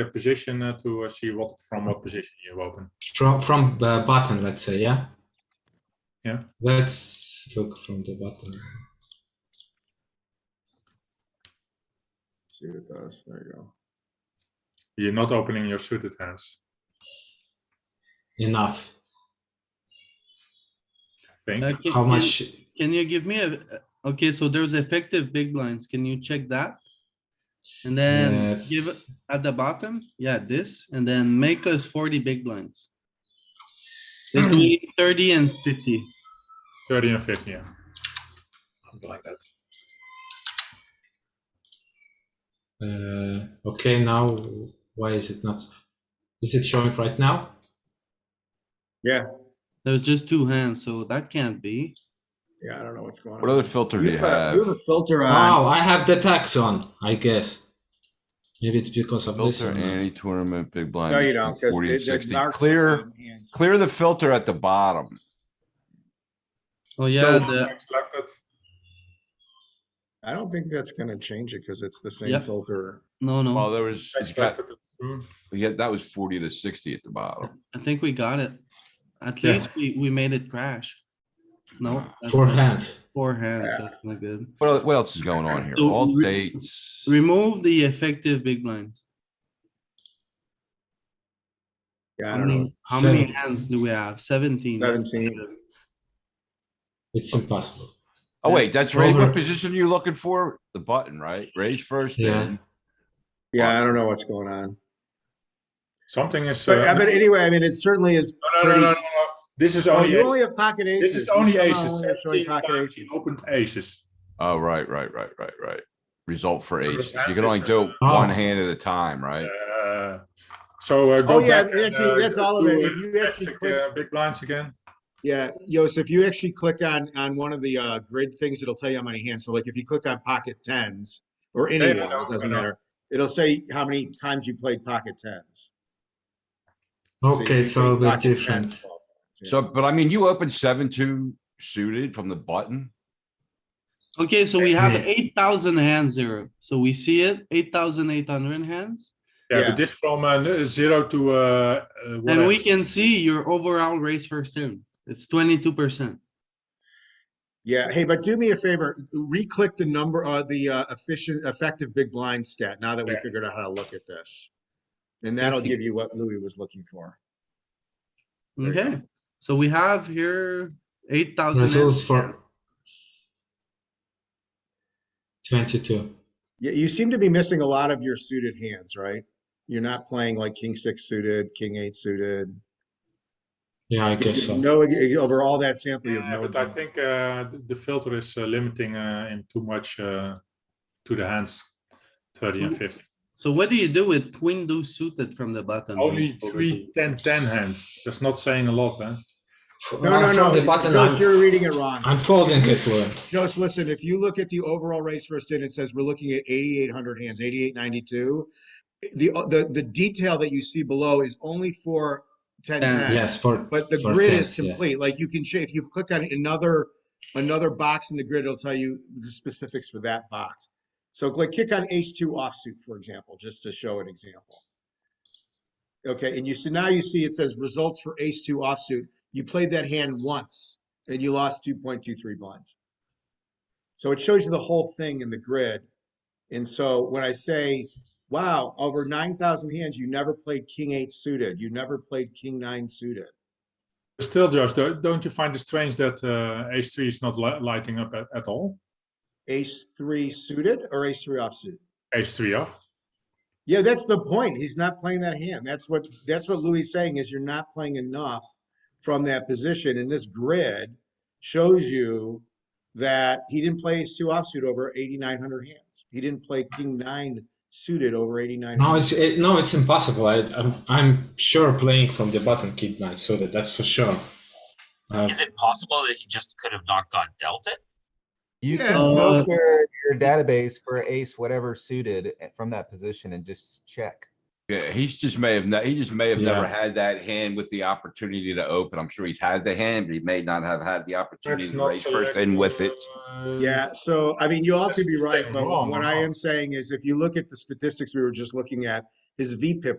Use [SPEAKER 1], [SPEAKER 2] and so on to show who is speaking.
[SPEAKER 1] your position uh, to uh, see what from what position you open.
[SPEAKER 2] from from uh, button let's say yeah
[SPEAKER 1] Yeah.
[SPEAKER 2] let's look from the button
[SPEAKER 3] See what it does. There you go.
[SPEAKER 1] You're not opening your suited hands.
[SPEAKER 2] enough
[SPEAKER 1] I think
[SPEAKER 4] Uh, can-
[SPEAKER 2] how
[SPEAKER 4] can-
[SPEAKER 2] much
[SPEAKER 4] Can you give me a, okay, so there's effective big blinds. Can you check that? And
[SPEAKER 2] uh,
[SPEAKER 3] um,
[SPEAKER 4] then give it at the bottom, yeah, this, and then make us forty big blinds. They need Thirty and fifty.
[SPEAKER 1] 30 and 50. Yeah. Something like that.
[SPEAKER 2] uh, okay now why is it not is it showing right now
[SPEAKER 3] Yeah.
[SPEAKER 4] There's just two hands, so that can't be.
[SPEAKER 3] Yeah. I don't know what's going
[SPEAKER 5] What
[SPEAKER 3] on.
[SPEAKER 5] other filter do
[SPEAKER 3] you,
[SPEAKER 5] you
[SPEAKER 3] have a, you
[SPEAKER 5] have?
[SPEAKER 3] have a filter on.
[SPEAKER 2] oh i have the tax on i guess maybe it's because of this
[SPEAKER 5] Filter
[SPEAKER 2] or not.
[SPEAKER 5] any tournament big blind.
[SPEAKER 3] No, you
[SPEAKER 5] between
[SPEAKER 3] don't. Because
[SPEAKER 5] 40 and
[SPEAKER 3] it, it
[SPEAKER 5] 60.
[SPEAKER 3] narcs
[SPEAKER 5] Clear,
[SPEAKER 3] the Mm-hmm. hands.
[SPEAKER 5] clear the filter at the bottom.
[SPEAKER 4] Oh, yeah,
[SPEAKER 1] Still
[SPEAKER 4] the,
[SPEAKER 1] selected.
[SPEAKER 3] I don't think that's going to change it because it's the same
[SPEAKER 4] Yeah.
[SPEAKER 3] filter.
[SPEAKER 4] no,
[SPEAKER 5] Well,
[SPEAKER 4] no,
[SPEAKER 5] there was,
[SPEAKER 1] I
[SPEAKER 5] he's got,
[SPEAKER 1] selected it too.
[SPEAKER 5] yeah, that was forty to sixty at the bottom.
[SPEAKER 4] I think we got it. At
[SPEAKER 1] Yeah.
[SPEAKER 4] least we, we made it crash. No. that's
[SPEAKER 2] four
[SPEAKER 4] not-
[SPEAKER 2] hands
[SPEAKER 4] Four hands, that's not good.
[SPEAKER 5] What, el- what else is going on here?
[SPEAKER 4] So
[SPEAKER 5] All
[SPEAKER 4] re-
[SPEAKER 5] dates.
[SPEAKER 4] Remove the effective big blinds.
[SPEAKER 3] Yeah. I
[SPEAKER 4] How
[SPEAKER 3] don't know.
[SPEAKER 4] many, how many
[SPEAKER 2] Seven.
[SPEAKER 4] hands do we have? Seventeen. that's not
[SPEAKER 3] 17.
[SPEAKER 4] good.
[SPEAKER 2] it's impossible
[SPEAKER 5] Oh, wait, that's raise.
[SPEAKER 2] Over.
[SPEAKER 5] What position are you looking for? The button, right? Raise first.
[SPEAKER 2] Yeah.
[SPEAKER 5] then-
[SPEAKER 3] Yeah. I don't know what's going on.
[SPEAKER 1] Something is.
[SPEAKER 3] But,
[SPEAKER 1] uh,
[SPEAKER 3] but anyway, I mean, it certainly is.
[SPEAKER 1] no, no, no, no, no, no. This is
[SPEAKER 3] Oh,
[SPEAKER 1] only.
[SPEAKER 3] you
[SPEAKER 1] aces.
[SPEAKER 3] only have pocket aces.
[SPEAKER 1] Oh, this is
[SPEAKER 3] You
[SPEAKER 1] only
[SPEAKER 3] somehow
[SPEAKER 1] aces.
[SPEAKER 3] only are showing
[SPEAKER 1] 17
[SPEAKER 3] pocket
[SPEAKER 1] times he
[SPEAKER 3] aces.
[SPEAKER 1] opened aces.
[SPEAKER 5] Oh, right, right, right, right, right. Result for
[SPEAKER 1] Sort of
[SPEAKER 5] aces. You can only
[SPEAKER 1] emphasis,
[SPEAKER 5] do it
[SPEAKER 2] uh,
[SPEAKER 5] one
[SPEAKER 2] oh.
[SPEAKER 5] hand at a time, right?
[SPEAKER 1] Uh, so uh, go
[SPEAKER 3] Oh, yeah,
[SPEAKER 1] back and,
[SPEAKER 3] actually,
[SPEAKER 1] uh,
[SPEAKER 3] that's all of
[SPEAKER 1] do,
[SPEAKER 3] it.
[SPEAKER 1] uh,
[SPEAKER 3] If you actually
[SPEAKER 1] effective,
[SPEAKER 3] click-
[SPEAKER 1] uh, big blinds again.
[SPEAKER 3] Yeah, Yos, if you actually click on, on one of the uh, grid things, it'll tell you how many hands. So like if you click on pocket tens or any
[SPEAKER 1] Yeah,
[SPEAKER 3] one,
[SPEAKER 1] yeah, no,
[SPEAKER 3] it doesn't
[SPEAKER 1] I know.
[SPEAKER 3] matter. It'll say how many times you played pocket tens. So you
[SPEAKER 2] okay
[SPEAKER 3] can
[SPEAKER 2] it's a little
[SPEAKER 3] play
[SPEAKER 2] bit
[SPEAKER 3] pocket
[SPEAKER 2] different
[SPEAKER 3] tens.
[SPEAKER 5] So, but I mean, you open seven, two suited from the button.
[SPEAKER 4] Okay, so we have
[SPEAKER 2] Yeah.
[SPEAKER 4] eight thousand hands there. So we see it, eight thousand eight hundred hands.
[SPEAKER 1] Yeah,
[SPEAKER 3] Yeah.
[SPEAKER 1] but this from uh, n- zero to. Uh, uh,
[SPEAKER 4] And
[SPEAKER 1] whatever.
[SPEAKER 4] we can see your overall raise first in. It's twenty-two percent.
[SPEAKER 3] Yeah, hey, but do me a favor, re-click the number, uh, the uh, efficient, effective big blind stat now that we
[SPEAKER 1] Yeah.
[SPEAKER 3] figured out how to look at this. And that'll give you what Louis was looking for. There you
[SPEAKER 4] Okay, so we have here eight thousand.
[SPEAKER 2] results for 22
[SPEAKER 3] Yeah, you seem to be missing a lot of your suited hands, right? You're not playing like king six suited, king eight suited.
[SPEAKER 2] yeah i guess
[SPEAKER 3] Because
[SPEAKER 2] so
[SPEAKER 3] you know ag- over all that sample, you have
[SPEAKER 1] Yeah,
[SPEAKER 3] no.
[SPEAKER 1] but I
[SPEAKER 3] example.
[SPEAKER 1] think uh, th- the filter is uh, limiting uh, him too much uh, to the hands, 30 and
[SPEAKER 4] So-
[SPEAKER 1] 50.
[SPEAKER 4] So what do you do with queen deuce suited from the button?
[SPEAKER 1] Only three 10 10 hands. That's not saying a lot, huh?
[SPEAKER 3] No, no,
[SPEAKER 2] I'm
[SPEAKER 3] no.
[SPEAKER 2] from the button
[SPEAKER 3] Josh,
[SPEAKER 2] I'm,
[SPEAKER 3] you're reading it wrong.
[SPEAKER 2] I'm folding it Louis.
[SPEAKER 3] Josh, listen, if you look at the overall race first in, it says we're looking at 8,800 hands, 8,892. The, the, the detail that you see below is only for 10
[SPEAKER 4] Ten,
[SPEAKER 3] ten.
[SPEAKER 2] yes for
[SPEAKER 3] But the
[SPEAKER 2] for
[SPEAKER 3] grid is
[SPEAKER 2] tens, yeah.
[SPEAKER 3] complete. Like you can, cha- if you click on another, another box in the grid, it'll tell you the specifics for that box. So like click on ace two offsuit, for example, just to show an example. Okay, and you see, now you see it says results for ace two offsuit. You played that hand once and you lost two point two three blinds. So it shows you the whole thing in the grid. And so when I say, wow, over nine thousand hands, you never played king eight suited, you never played king nine suited.
[SPEAKER 1] Still, Josh, do- don't you find it strange that uh, ace 3 is not li- lighting up at, at all?
[SPEAKER 3] ace three suited or ace three offsuit.
[SPEAKER 1] Ace 3 off.
[SPEAKER 3] Yeah, that's the point. He's not playing that hand. That's what that's what Louis is saying is you're not playing enough from that position. And this grid shows you that he didn't play ace two offsuit over 8,900 hands. He didn't play king nine suited over 8,900.
[SPEAKER 2] No, it's it, no, it's impossible. I, I'm I'm sure playing from the button kid knight, so that that's for sure. Uh,
[SPEAKER 6] Is it possible that he just could have not got dealt it?
[SPEAKER 7] You
[SPEAKER 3] Yeah,
[SPEAKER 7] can
[SPEAKER 3] it's
[SPEAKER 7] go
[SPEAKER 4] possible.
[SPEAKER 7] to your your database for ace, whatever suited eh, from that position and just check.
[SPEAKER 5] Yeah, he's just may have, ne- he just may have never
[SPEAKER 2] Yeah.
[SPEAKER 5] had that hand with the opportunity to open. I'm sure he's had the hand, but he may not have had the opportunity
[SPEAKER 1] That's
[SPEAKER 5] to
[SPEAKER 1] not
[SPEAKER 5] raise first and with it.
[SPEAKER 1] uh,
[SPEAKER 3] Yeah, so I mean, you all
[SPEAKER 1] That's
[SPEAKER 3] could be
[SPEAKER 1] the
[SPEAKER 3] right,
[SPEAKER 1] thing,
[SPEAKER 3] but
[SPEAKER 1] wrong,
[SPEAKER 3] what I
[SPEAKER 1] wrong.
[SPEAKER 3] am saying is if you look at the statistics we were just looking at, his VPIP